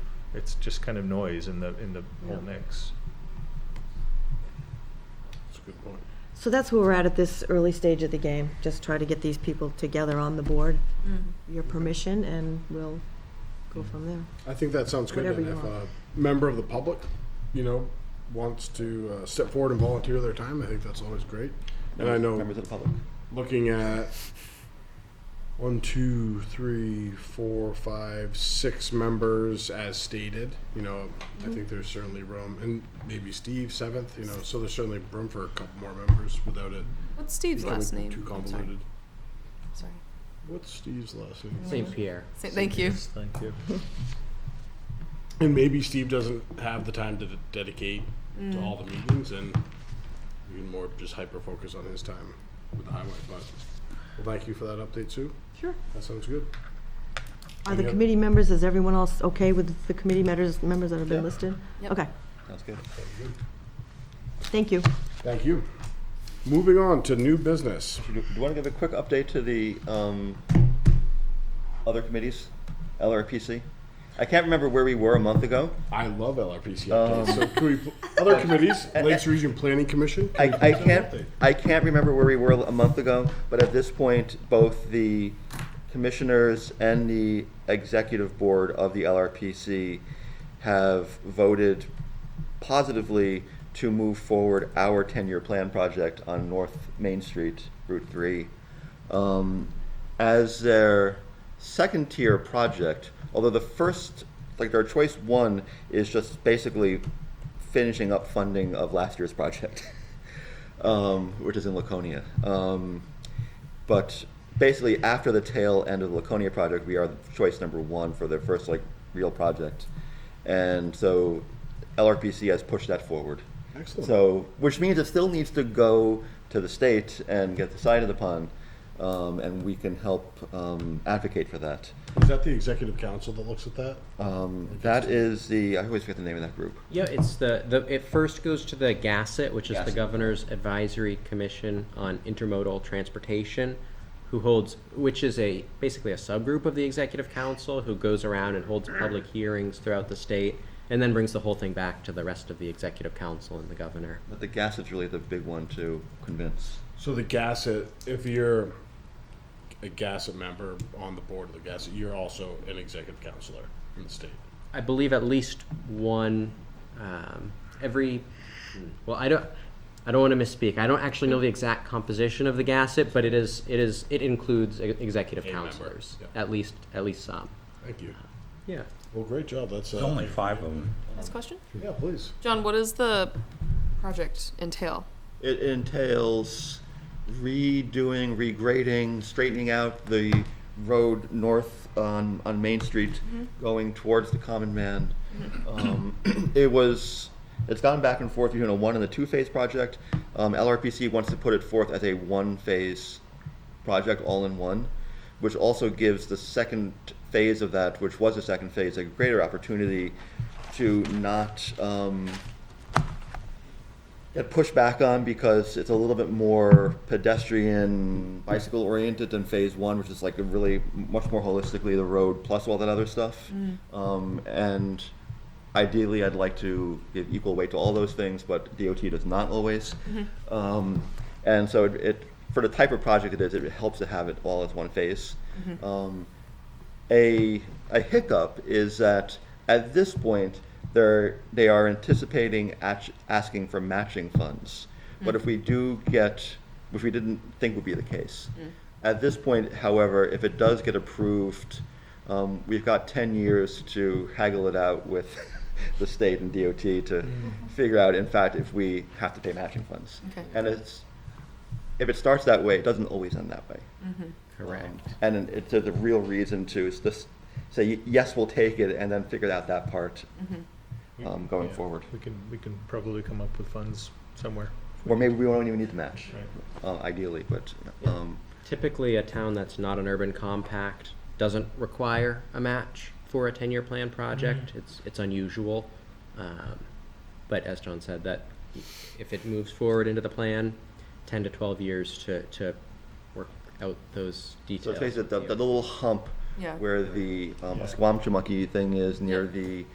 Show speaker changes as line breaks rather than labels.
It's just kind of noise in the, in the whole
Yeah.
mix.
That's a good point.
So that's where we're at at this early stage of the game, just try to get these people together on the board, your permission, and we'll go from there.
I think that sounds good.
Whatever
And
you
if a
want.
member of the public, you know, wants to uh, step forward and volunteer their time, I think that's always great. And I know
Members of the public.
looking at one, two, three, four, five, six members as stated. You know,
Mm-hmm.
I think there's certainly room, and maybe Steve seventh. You know, so there's certainly room for a couple more members without it
What's Steve's
becoming
last name?
too
I'm sorry.
convoluted.
Sorry.
What's Steve's last name?
St. Pierre.
Say- Thank you.
Thank you.
And maybe Steve doesn't have the time to d- dedicate to all the meetings, and we can more just hyper focus on his time with the highway. But well, thank you for that update, Sue.
Sure.
That sounds good.
Are the
Yep.
committee members, is everyone else okay with the committee members, members that have been listed?
Yep.
Okay,
Sounds good.
thank you.
Thank you. Moving on to new business.
Do do you want to give a quick update to the um, other committees, LRPC? I can't remember where we were a month ago.
I love LRPC updates.
Um,
so can we, pl- other committees, Lakes Region Planning Commission. can
I,
we
I
please have
can't,
an update?
I can't remember where we were a month ago, but at this point, both the commissioners and the executive board of the LRPC have voted positively to move forward our ten-year plan project on North Main Street, Route Three. um, as their second tier project, although the first, like their choice one is just basically finishing up funding of last year's project, um, which is in Laconia. Um, but basically, after the tail end of the Laconia project, we are choice number one for their first like real project, and so LRPC has pushed that forward.
Excellent.
So, which means it still needs to go to the state and get decided upon, um, and we can help um, advocate for that.
Is that the executive council that looks at that?
Um, that is the I always forget the name of that group.
Yeah, it's the, the, it first goes to the GASSET, which is the
GASSET.
Governor's Advisory Commission on Intermodal Transportation, who holds, which is a, basically a subgroup of the Executive Council, who goes around and holds public hearings throughout the state, and then brings the whole thing back to the rest of the Executive Council and the Governor.
But the gas is really the big one to convince.
So the Gasset, if you're a Gasset member on the board of the Gasset, you're also an executive counselor in the state.
I believe at least one um, every. Well, I don't. I don't want to misspeak. I don't actually know the exact composition of the gasset, but it is. It is. It includes e- executive
A member,
counselors,
yeah.
at least. At least some.
Thank you.
Yeah.
Well, great job. That's uh,
There's only five of them.
Last question?
Yeah, please.
John, what does the project entail?
It entails redoing, regrading, straightening out the road north on, on Main Street, going towards the common man. Um, It was, it's gone back and forth between a one and a two-phase project. Um, LRPC wants to put it forth as a one-phase project all in one, which also gives the second phase of that, which was the second phase, a greater opportunity to not um, get pushed back on because it's a little bit more pedestrian, bicycle oriented than phase one, which is like a really much more holistically the road plus all that other stuff. Um, and ideally, I'd like to give equal weight to all those things, but DOT does not always. Um, and so it, it, for the type of project it is, it helps to have it all as one phase. Um, a, a hiccup is that at this point, they're, they are anticipating act- asking for matching funds. But if we do get, which we didn't think would be the case. At this point, however, if it does get approved, um, we've got ten years to haggle it out with the state and DOT to figure out, in fact, if we have to pay matching funds.
Okay.
And it's, if it starts that way, it doesn't always end that way.
Correct.
And then it's there's a real reason to s- just say, yes, we'll take it, and then figure out that part um, going
Yeah.
forward.
We can, we can probably come up with funds somewhere.
Or maybe we won't even need the match,
Right.
uh, ideally, but, um,
Typically, a town that's not an urban compact doesn't require a match for a ten-year plan project. It's it's unusual, um, but as John said, that if it moves forward into the plan, ten to twelve years to to work out those
so
details.
face it, the,
with
the
you.
little hump
Yeah.
where the um, Esquamchamucky thing is near the